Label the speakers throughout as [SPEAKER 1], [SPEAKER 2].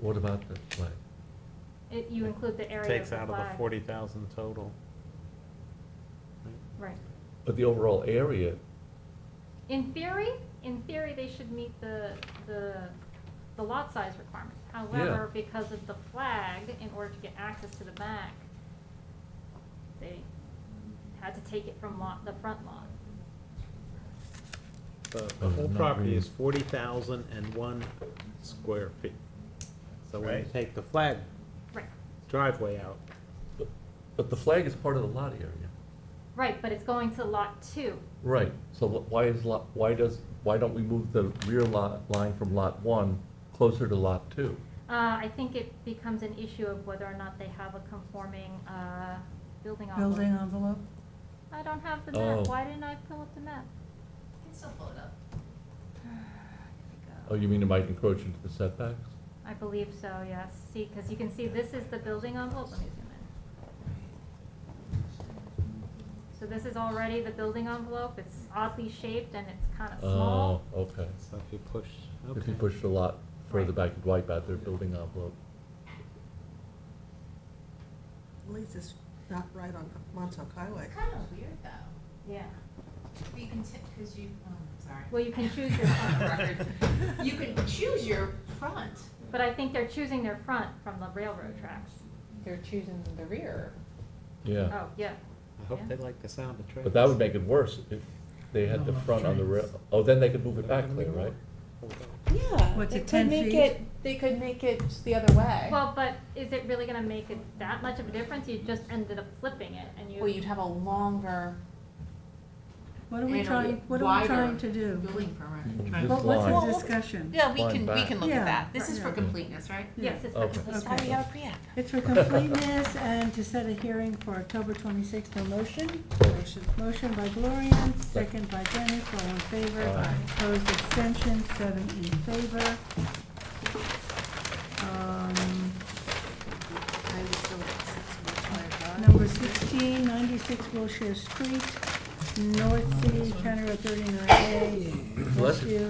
[SPEAKER 1] What about the flag?
[SPEAKER 2] It, you include the area of
[SPEAKER 3] Takes
[SPEAKER 2] the
[SPEAKER 3] out of the
[SPEAKER 2] flag.
[SPEAKER 3] forty thousand total.
[SPEAKER 2] Right.
[SPEAKER 1] But the overall area,
[SPEAKER 2] In theory, in theory, they should meet the, the, the lot size requirement. However, because of the flag, in order to get access to the back, they had to take it from lot, the front lot.
[SPEAKER 3] The, the
[SPEAKER 1] Oh,
[SPEAKER 3] whole
[SPEAKER 1] not
[SPEAKER 3] property
[SPEAKER 1] really.
[SPEAKER 3] is forty thousand and one square feet. So when you
[SPEAKER 4] Right.
[SPEAKER 3] take the flag
[SPEAKER 2] Right,
[SPEAKER 3] driveway out,
[SPEAKER 1] but, but the flag is part of the lot area.
[SPEAKER 2] right, but it's going to lot two.
[SPEAKER 1] Right, so wh- why is lot, why does, why don't we move the rear lot line from lot one closer to lot two?
[SPEAKER 2] Uh, I think it becomes an issue of whether or not they have a conforming, uh, building envelope.
[SPEAKER 4] Building envelope?
[SPEAKER 2] I don't have the map.
[SPEAKER 1] Oh.
[SPEAKER 2] Why didn't I pull up the map?
[SPEAKER 5] can still pull it up.
[SPEAKER 1] Oh, you mean it might encroach into the setbacks?
[SPEAKER 2] I believe so, yes. See, because you can see this is the building envelope. Let me zoom in. So this is already the building envelope. It's oddly shaped and it's kind of
[SPEAKER 1] Oh,
[SPEAKER 2] small.
[SPEAKER 1] okay.
[SPEAKER 3] so if you push,
[SPEAKER 1] If you
[SPEAKER 3] okay.
[SPEAKER 1] push the lot further
[SPEAKER 2] Right.
[SPEAKER 1] back, you'd wipe out their building envelope.
[SPEAKER 4] At least it's not right on Montauk Highway.
[SPEAKER 5] It's kind of weird though.
[SPEAKER 2] Yeah.
[SPEAKER 5] You can, because you, oh, I'm sorry.
[SPEAKER 2] Well, you can choose your front.
[SPEAKER 5] You can choose your front.
[SPEAKER 2] But I think they're choosing their front from the railroad tracks.
[SPEAKER 6] They're choosing the rear.
[SPEAKER 1] Yeah,
[SPEAKER 2] Oh, yeah.
[SPEAKER 3] I hope they like the sound of trains.
[SPEAKER 1] but that would make it worse if they had the
[SPEAKER 7] No, no,
[SPEAKER 1] front on the
[SPEAKER 7] trains.
[SPEAKER 1] rail, oh, then they could move it back there, right?
[SPEAKER 6] Yeah.
[SPEAKER 4] What's
[SPEAKER 6] they
[SPEAKER 4] it,
[SPEAKER 6] could
[SPEAKER 4] 10
[SPEAKER 6] make
[SPEAKER 4] feet?
[SPEAKER 6] it- They could make it the other way.
[SPEAKER 2] Well, but is it really going to make it that much of a difference? You just ended up flipping it and you.
[SPEAKER 6] Well, you'd have a longer,
[SPEAKER 4] What are we
[SPEAKER 6] And a
[SPEAKER 4] trying, what are we
[SPEAKER 6] wider
[SPEAKER 4] trying to do?
[SPEAKER 5] Building permit.
[SPEAKER 1] You
[SPEAKER 4] What-
[SPEAKER 1] Mm, just
[SPEAKER 4] What's
[SPEAKER 1] line.
[SPEAKER 4] the discussion?
[SPEAKER 5] Yeah, we
[SPEAKER 1] Line
[SPEAKER 5] can, we
[SPEAKER 1] back.
[SPEAKER 5] can look at
[SPEAKER 4] Yeah.
[SPEAKER 5] that. This is for
[SPEAKER 4] Yeah.
[SPEAKER 5] completeness, right?
[SPEAKER 2] Yes, it's.
[SPEAKER 1] Okay.
[SPEAKER 2] definitely-
[SPEAKER 4] Okay.
[SPEAKER 5] Sorry, I'll pre-app.
[SPEAKER 4] It's for completeness and to set a hearing for October twenty-sixth, no motion? Motion. Motion by Gloria, second by Dennis, all in favor.
[SPEAKER 1] Aye.
[SPEAKER 4] Opposed, extension, seven in favor. Um, Number sixteen, ninety-six Wilshire Street, North City, County Road thirty-nine A,
[SPEAKER 1] Bless you.
[SPEAKER 2] Bless
[SPEAKER 4] Northview.
[SPEAKER 2] you.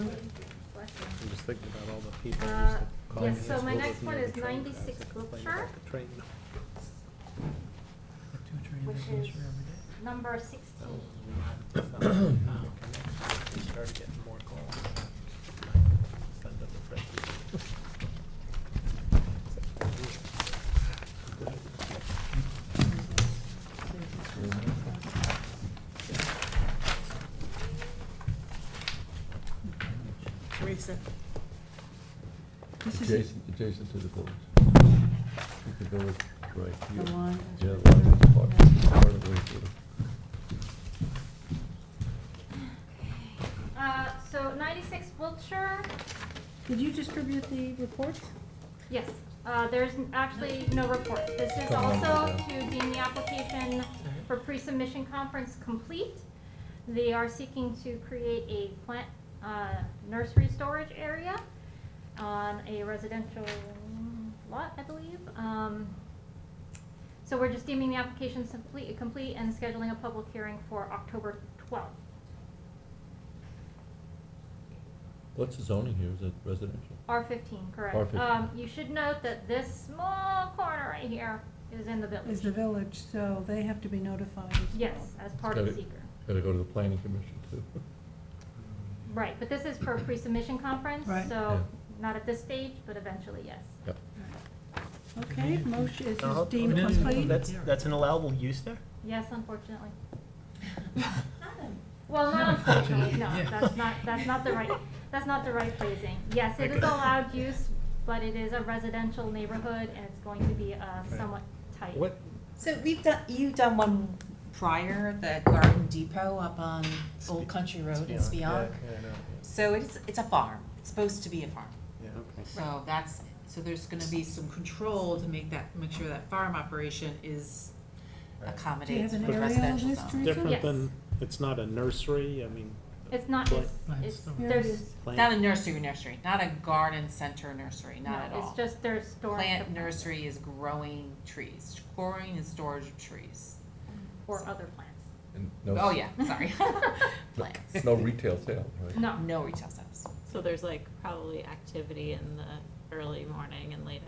[SPEAKER 3] I'm just thinking about all the people who
[SPEAKER 2] Uh,
[SPEAKER 3] used to call me.
[SPEAKER 2] yes,
[SPEAKER 3] as
[SPEAKER 2] so my
[SPEAKER 3] well as
[SPEAKER 2] next one
[SPEAKER 3] another
[SPEAKER 2] is
[SPEAKER 3] train driver
[SPEAKER 2] 96
[SPEAKER 3] to complain
[SPEAKER 2] Wiltshire,
[SPEAKER 3] about the train.
[SPEAKER 7] Two trains
[SPEAKER 2] Which
[SPEAKER 7] that goes
[SPEAKER 2] is-
[SPEAKER 7] for every day.
[SPEAKER 2] Number sixteen.
[SPEAKER 1] Oh.
[SPEAKER 3] Now, we Started getting more calls. Send up the press.
[SPEAKER 4] Teresa. This is
[SPEAKER 1] Adjacent, adjacent to the village. The village, right
[SPEAKER 4] the
[SPEAKER 1] here.
[SPEAKER 4] one.
[SPEAKER 1] Yeah, the line is part, part of the way through.
[SPEAKER 2] Uh, so ninety-six Wiltshire,
[SPEAKER 4] Did you distribute the reports?
[SPEAKER 2] yes, uh, there's n- actually no report. This is
[SPEAKER 1] Come on,
[SPEAKER 2] also
[SPEAKER 1] Lisa.
[SPEAKER 2] to deem the application for pre-submission conference complete. They are seeking to create a plant, uh, nursery storage area on a residential lot, I believe. Um, so we're just deeming the application complete, complete and scheduling a public hearing for October twelfth.
[SPEAKER 1] What's the zoning here? Is it residential?
[SPEAKER 2] R fifteen, correct.
[SPEAKER 1] R15.
[SPEAKER 2] Um, you should note that this small corner right here is in the
[SPEAKER 4] Is
[SPEAKER 2] village.
[SPEAKER 4] the village, so they have to be notified as well.
[SPEAKER 2] Yes, as part of
[SPEAKER 1] Got it.
[SPEAKER 2] seeker.
[SPEAKER 1] Gotta go to the planning commission too.
[SPEAKER 2] Right, but this is for a pre-submission conference,
[SPEAKER 4] Right.
[SPEAKER 1] Yeah.
[SPEAKER 2] so not at this stage, but eventually, yes.
[SPEAKER 1] Yep.
[SPEAKER 4] Okay, motion is
[SPEAKER 8] No,
[SPEAKER 4] deemed
[SPEAKER 7] no, no, no,
[SPEAKER 4] complete.
[SPEAKER 8] That's, that's an allowable use there?
[SPEAKER 2] Yes, unfortunately.
[SPEAKER 5] Not a-
[SPEAKER 2] Well, not unfortunately, no,
[SPEAKER 7] Yeah.
[SPEAKER 2] that's not, that's not the right, that's not the right phrasing. Yes, it is allowed use, but it is a residential neighborhood and it's going to be, uh, somewhat tight.
[SPEAKER 3] What,
[SPEAKER 6] so we've done, you've done one prior, the Garden Depot up on Old Country Road in
[SPEAKER 3] Yeah,
[SPEAKER 6] Spionk.
[SPEAKER 3] yeah, I know,
[SPEAKER 6] So it's, it's a farm, it's supposed to be a farm.
[SPEAKER 3] yeah, okay.
[SPEAKER 6] Right.
[SPEAKER 5] So that's, so there's gonna be some control to make that, make sure that farm operation is
[SPEAKER 8] Right.
[SPEAKER 4] Do you have
[SPEAKER 6] accommodates for
[SPEAKER 4] an
[SPEAKER 6] the
[SPEAKER 4] aerial of
[SPEAKER 6] residential
[SPEAKER 4] this,
[SPEAKER 6] zone.
[SPEAKER 4] Teresa?
[SPEAKER 2] Yes.
[SPEAKER 3] Different than, it's not a nursery, I mean.
[SPEAKER 2] It's not, it's,
[SPEAKER 7] Plant
[SPEAKER 2] it's,
[SPEAKER 7] storage.
[SPEAKER 4] Here it
[SPEAKER 2] there's,
[SPEAKER 4] is.
[SPEAKER 3] plant-
[SPEAKER 6] Not a nursery nursery, not a garden center nursery,
[SPEAKER 2] no,
[SPEAKER 6] not at all.
[SPEAKER 2] it's just there's storage.
[SPEAKER 6] Plant
[SPEAKER 2] of-
[SPEAKER 6] nursery is growing trees, growing and storage of trees.
[SPEAKER 2] Or other plants.
[SPEAKER 1] And no
[SPEAKER 6] Oh,
[SPEAKER 1] s-
[SPEAKER 6] yeah, sorry. Plants.
[SPEAKER 1] No retail sale, right?
[SPEAKER 2] No.
[SPEAKER 6] No retail sales.
[SPEAKER 9] So there's like probably activity in the early morning and late